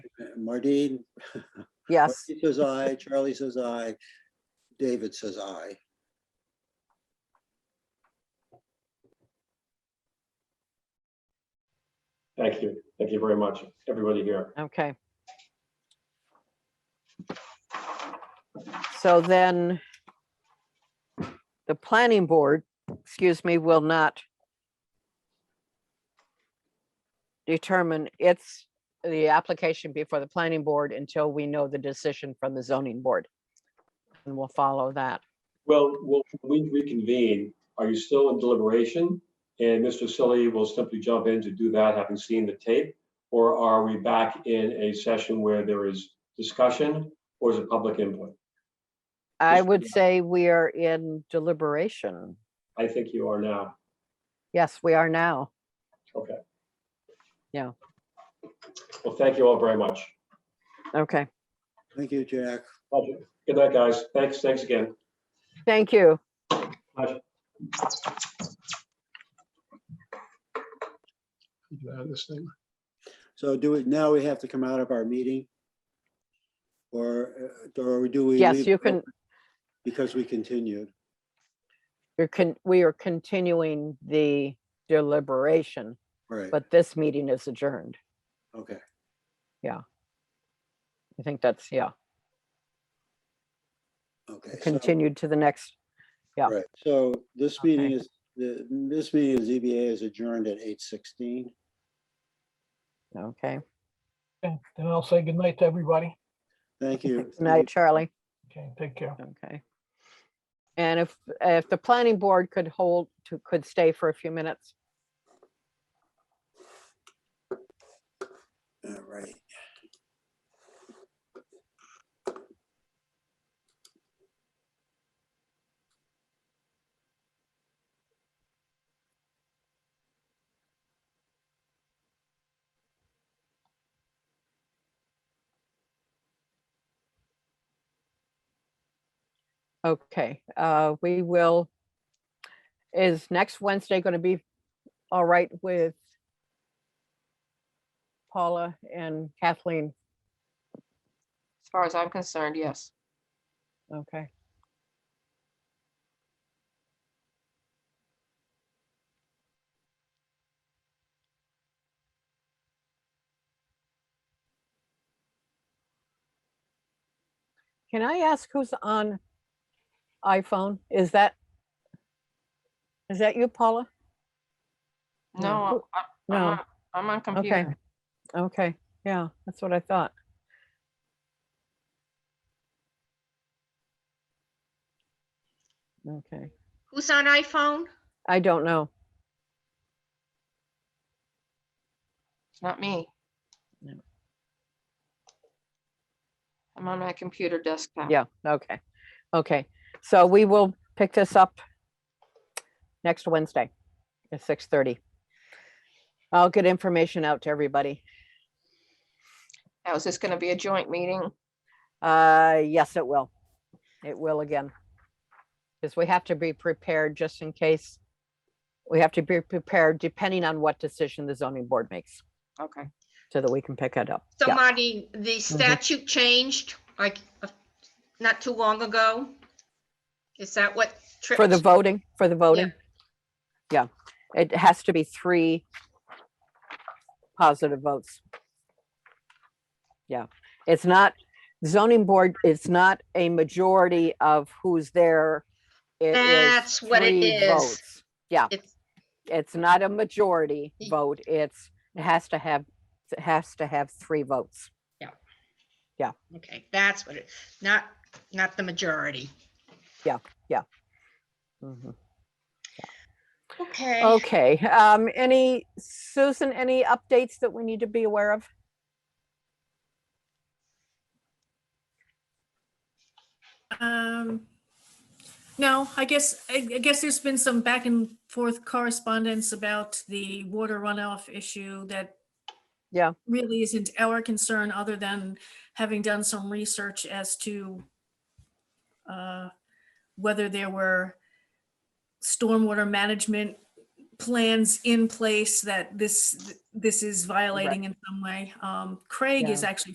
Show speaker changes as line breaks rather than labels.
Mardine,
Yes,
Marty says aye, Charlie says aye, David says aye.
Thank you. Thank you very much, everybody here.
okay. So then the planning board, excuse me, will not determine its, the application before the planning board until we know the decision from the zoning board. And we'll follow that.
Well, we'll- when we reconvene, are you still in deliberation? And Mr. Silly will simply jump in to do that, having seen the tape? Or are we back in a session where there is discussion or is it public input?
I
Just-
would say we are in deliberation.
I think you are now.
Yes, we are now.
Okay.
Yeah.
Well, thank you all very much.
Okay,
Thank you, Jack.
Pleasure. Good night, guys. Thanks, thanks again.
thank you.
Get out of this thing.
So do it, now we have to come out of our meeting? Or, uh, or do we?
Yes,
leave
you
it
can,
open Because we continued.
you're con, we are continuing the deliberation,
Right,
but this meeting is adjourned.
okay.
I think that's, yeah,
Okay. so-
continued to the next, yeah.
Right, so this meeting
Okay.
is, the this meeting of ZBA is adjourned at eight sixteen.
okay.
Okay, Then I'll say goodnight to everybody.
Thank you.
Good night, Charlie.
Okay, take care.
Okay. And if, if the planning board could hold, to could stay for a few minutes.
All right.
Okay, uh, we will, is next Wednesday going to be all right with Paula and Kathleen?
As far as I'm concerned, yes.
Okay. Can I ask who's on iPhone? Is that? Is that you, Paula? Yeah.
No, I- I'm,
No.
on-
Uh-huh,
I'm on
Okay.
computer.
Okay, yeah, that's what I thought. Okay.
Who's on iPhone?
I don't know.
It's not me.
No.
I'm on my computer
Ah.
desktop.
Yeah, okay. Okay, so we will pick this up next Wednesday at six thirty. I'll get information out to everybody.
Now, is this going to be a joint meeting?
Uh, yes, it will. It will again. Because we have to be prepared just in case. We have to be prepared depending on what decision the zoning board makes,
Okay.
so that we can pick it up. Yeah. Mm-hmm.
Somebody, the statute changed like uh, not too long ago. Is that what?
For the
tripped-
voting, for the voting. Yeah, it has to be three positive votes. Yeah, it's not zoning board, it's not a majority of who's there. It is
That's what it
three
is.
votes. Yeah,
It's-
it's not a majority
Y-
vote, it's, it has to have, it has to have three votes.
Okay, that's what it, not, not the majority.
Mhm.
Okay.
Okay, um, any, Susan, any updates that we need to be aware of?
Um, no, I guess, I I guess there's been some back and forth correspondence about the water runoff issue that
Yeah.
really isn't our concern, other than having done some research as to uh, whether there were stormwater management plans in place that this, this is violating in some way. Um, Craig is actually